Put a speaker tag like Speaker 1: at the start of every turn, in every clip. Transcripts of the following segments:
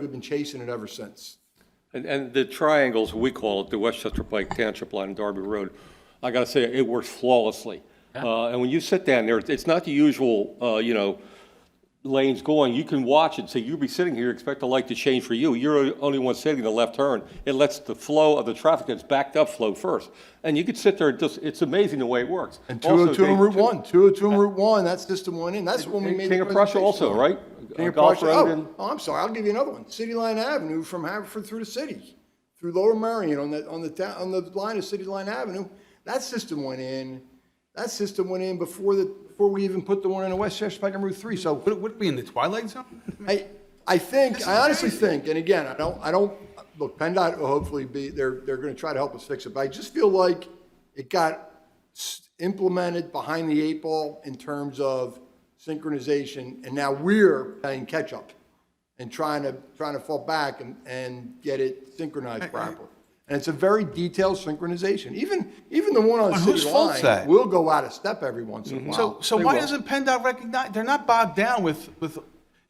Speaker 1: We've been chasing it ever since.
Speaker 2: And, and the triangles, we call it, the Westchester Pike Township Line and Darby Road, I gotta say, it works flawlessly. Uh, and when you sit down there, it's not the usual, uh, you know, lanes going, you can watch it, so you'll be sitting here, expect the light to change for you, you're the only one sitting in the left turn. It lets the flow of the traffic that's backed up flow first. And you could sit there, and just, it's amazing the way it works.
Speaker 1: And
Speaker 2: Also,
Speaker 1: 202 and
Speaker 2: Dave,
Speaker 1: Route
Speaker 2: too-
Speaker 1: 1, 202 and Route 1, that system went in. That's when we made. the
Speaker 2: King of Prussia
Speaker 1: presentation.
Speaker 2: also, right? Uh,
Speaker 1: King of
Speaker 2: Golf
Speaker 1: Prussia,
Speaker 2: Road
Speaker 1: oh,
Speaker 2: and-
Speaker 1: oh, I'm sorry, I'll give you another one. City Line Avenue from Haverford through the city, through Lower Marion on the, on the town, on the line of City Line Avenue. That system went in, that system went in before the, before we even put the one in the Westchester Pike on Route 3. So
Speaker 3: Would, would it be in the twilight zone?
Speaker 1: I, I think, I honestly think, and again, I don't, I don't, look, PennDOT will hopefully be, they're, they're gonna try to help us fix it, but I just feel like it got s- implemented behind the eight ball in terms of synchronization, and now we're playing catch-up and trying to, trying to fall back and, and get it synchronized properly. And it's a very detailed synchronization. Even, even the one on
Speaker 3: But
Speaker 1: City
Speaker 3: whose fault's
Speaker 1: Line
Speaker 3: that? Mm-hmm.
Speaker 1: will go out of step every once in a
Speaker 3: So,
Speaker 1: while.
Speaker 3: so why doesn't PennDOT recognize, they're not bogged down with, with,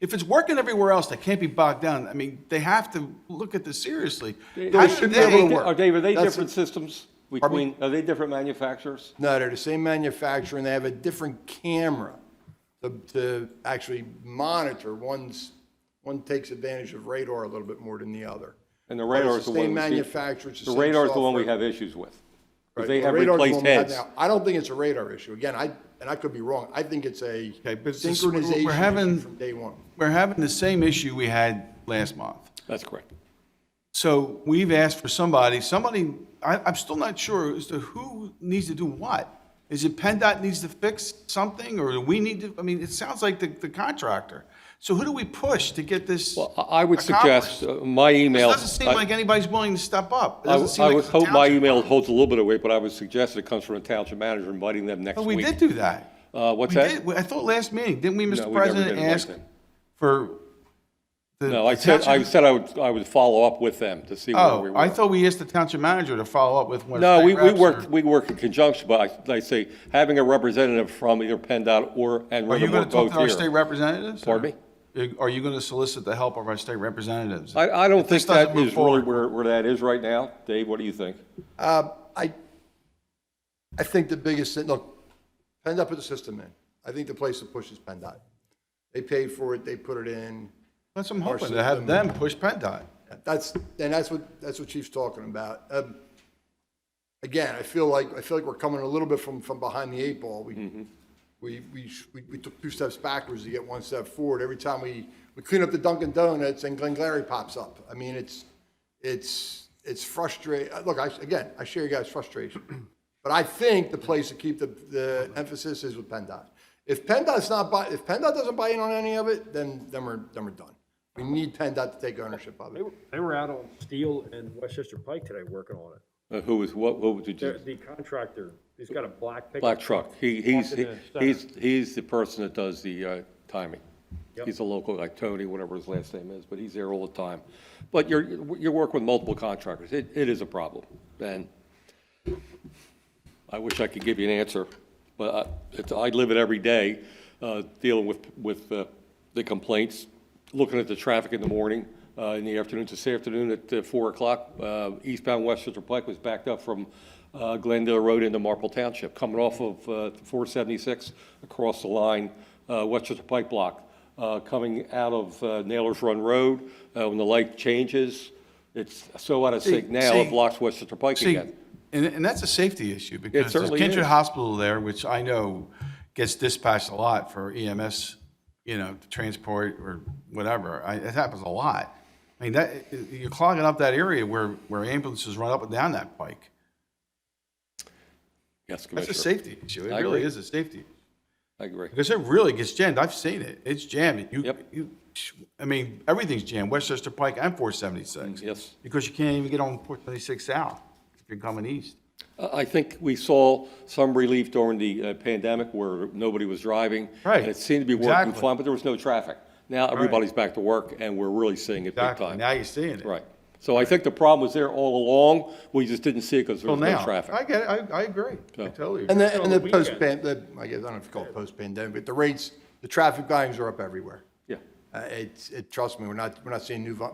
Speaker 3: if it's working everywhere else, they can't be bogged down. I mean, they have to look at this seriously. How
Speaker 1: they
Speaker 3: do
Speaker 1: should be
Speaker 3: they-
Speaker 1: able to work.
Speaker 2: Are, Dave, are they
Speaker 1: That's-
Speaker 2: different systems between, are they different manufacturers?
Speaker 1: No, they're the same manufacturer, and they have a different camera to, to actually monitor. One's, one takes advantage of radar a little bit more than the other.
Speaker 2: And the
Speaker 1: But it's
Speaker 2: radar is the one.
Speaker 1: Same
Speaker 2: we see-
Speaker 1: manufacturer, it's the
Speaker 2: The
Speaker 1: same
Speaker 2: radar is the one we
Speaker 1: software.
Speaker 2: have issues with. 'Cause
Speaker 1: Right,
Speaker 2: They
Speaker 1: the
Speaker 2: have
Speaker 1: radar's the one
Speaker 2: replaced
Speaker 1: we have
Speaker 2: heads.
Speaker 1: now. I don't think it's a radar issue. Again, I, and I could be wrong. I think it's a
Speaker 3: Okay, but it's just- we're- we're
Speaker 1: synchronization issue
Speaker 3: having-
Speaker 1: from day one.
Speaker 3: We're having the same issue we had last month.
Speaker 2: That's correct.
Speaker 3: So we've asked for somebody, somebody, I, I'm still not sure as to who needs to do what. Is it PennDOT needs to fix something or do we need to, I mean, it sounds like the, the contractor. So who do we push to get this?
Speaker 2: Well, I I would
Speaker 3: accomplished?
Speaker 2: suggest uh, my email.
Speaker 3: It doesn't seem
Speaker 2: I-
Speaker 3: like anybody's willing to step up. It
Speaker 2: I
Speaker 3: doesn't
Speaker 2: would
Speaker 3: seem
Speaker 2: I
Speaker 3: like
Speaker 2: would
Speaker 3: the
Speaker 2: hope my
Speaker 3: township-
Speaker 2: email holds a little bit of weight, but I would suggest it comes from a township manager inviting them next
Speaker 3: But
Speaker 2: week.
Speaker 3: we did do that.
Speaker 2: Uh, what's
Speaker 3: We
Speaker 2: that?
Speaker 3: did. I thought last meeting, didn't we,
Speaker 2: No,
Speaker 3: Mr.
Speaker 2: we never did
Speaker 3: President,
Speaker 2: it like
Speaker 3: ask
Speaker 2: that.
Speaker 3: for the?
Speaker 2: No, I said, I
Speaker 3: township-
Speaker 2: said I would, I would follow up with them to see where we
Speaker 3: Oh,
Speaker 2: were.
Speaker 3: I thought we asked the township manager to follow up with one. of
Speaker 2: No,
Speaker 3: state
Speaker 2: we, we
Speaker 3: reps or-
Speaker 2: work, we work in conjunction, but I, I say, having a representative from either PennDOT or, and
Speaker 3: Are you
Speaker 2: Rivermore
Speaker 3: going to talk
Speaker 2: both
Speaker 3: to our state
Speaker 2: here.
Speaker 3: representatives? or-
Speaker 2: Pardon
Speaker 3: Are you going to solicit the help of our state representatives?
Speaker 2: I, I don't
Speaker 3: If this
Speaker 2: think that
Speaker 3: doesn't move
Speaker 2: is really
Speaker 3: forward-
Speaker 2: where, where that is right now. Dave, what do you think?
Speaker 1: Uh, I, I think the biggest, thing. look, PennDOT put the system in. I think the place to push is PennDOT. They paid for it, they put it in.
Speaker 3: That's what I'm hoping, to have them push PennDOT.
Speaker 1: That's, and that's what, that's what Chief's talking about. Um, Again, I feel like, I feel like we're coming a little bit from, from behind the eight ball. We, we, we, sh- we- we took two steps backwards to get one step forward. Every time we, we clean up the Dunkin' Donuts and Glengarry pops up. I mean, it's, it's, it's frustrating. Look, I, again, I share your guys' frustration. But I think the place to keep the, the emphasis is with PennDOT. If PennDOT's not buy, if PennDOT doesn't buy in on any of it, then, then we're, then we're done. We need PennDOT to take ownership of
Speaker 4: They
Speaker 1: it.
Speaker 4: were, they were out on Steel and Westchester Pike today working on it.
Speaker 2: Uh, Who is, what, what did you?
Speaker 4: The- The contractor, he's got a black pickup.
Speaker 2: Black truck. He, he's,
Speaker 4: Walking in the
Speaker 2: he's,
Speaker 4: center.
Speaker 2: he's the person that does the uh, timing.
Speaker 4: Yep.
Speaker 2: He's a local, like Tony, whatever his last name is, but he's there all the time. But you're, you work with multiple contractors. It, it is a problem. And I wish I could give you an answer, but I, it's- I live it every day, uh, dealing with, with uh, the complaints, looking at the traffic in the morning, uh, in the afternoons. This afternoon at uh, four o'clock, uh, eastbound Westchester Pike was backed up from uh, Glendale Road into Marple Township, coming off of uh, 476 across the line, uh, Westchester Pike block, uh, coming out of uh, Nailers Run Road. Uh, When the light changes, it's so out of sync now, it
Speaker 3: see-
Speaker 2: blocks Westchester Pike
Speaker 3: See,
Speaker 2: again.
Speaker 3: and, and that's a safety issue because there's
Speaker 2: certainly
Speaker 3: Kindred
Speaker 2: is.
Speaker 3: Hospital there, which I know gets dispatched a lot for EMS, you know, transport or whatever. I, it happens a lot. I mean, that, you're clogging up that area where, where ambulances run up and down that pike.
Speaker 2: Yes, Commissioner.
Speaker 3: That's a safety issue. It
Speaker 2: I
Speaker 3: really
Speaker 2: agree.
Speaker 3: is a safety.
Speaker 2: I agree.
Speaker 3: Because it really gets jammed. I've seen it. It's jammed. You,
Speaker 2: Yep.
Speaker 3: you, I mean, everything's jammed, Westchester Pike and 476.
Speaker 2: Mm, yes.
Speaker 3: Because you can't even get on 476 south if you're coming east.
Speaker 2: I I think we saw some relief during the uh, pandemic where nobody was driving.
Speaker 3: Right.
Speaker 2: And it seemed to be working
Speaker 3: Exactly.
Speaker 2: fine, but there was no traffic. Now everybody's back to work and we're really seeing it big
Speaker 3: Exactly.
Speaker 2: time.
Speaker 3: Now you're seeing it.
Speaker 2: Right. So I think the problem was there all along. We just didn't see it because there
Speaker 3: Well,
Speaker 2: was no
Speaker 3: now,
Speaker 2: traffic.
Speaker 3: I get it. I, I agree. I
Speaker 2: So-
Speaker 3: totally agree.
Speaker 1: And the, and the
Speaker 4: the weekend.
Speaker 1: post, pan- the- I guess, I don't know if you call it post-pandemic, but the rates, the traffic volumes are up everywhere.
Speaker 2: Yeah.
Speaker 1: Uh, It's, it, trust me, we're not, we're not seeing new, vo-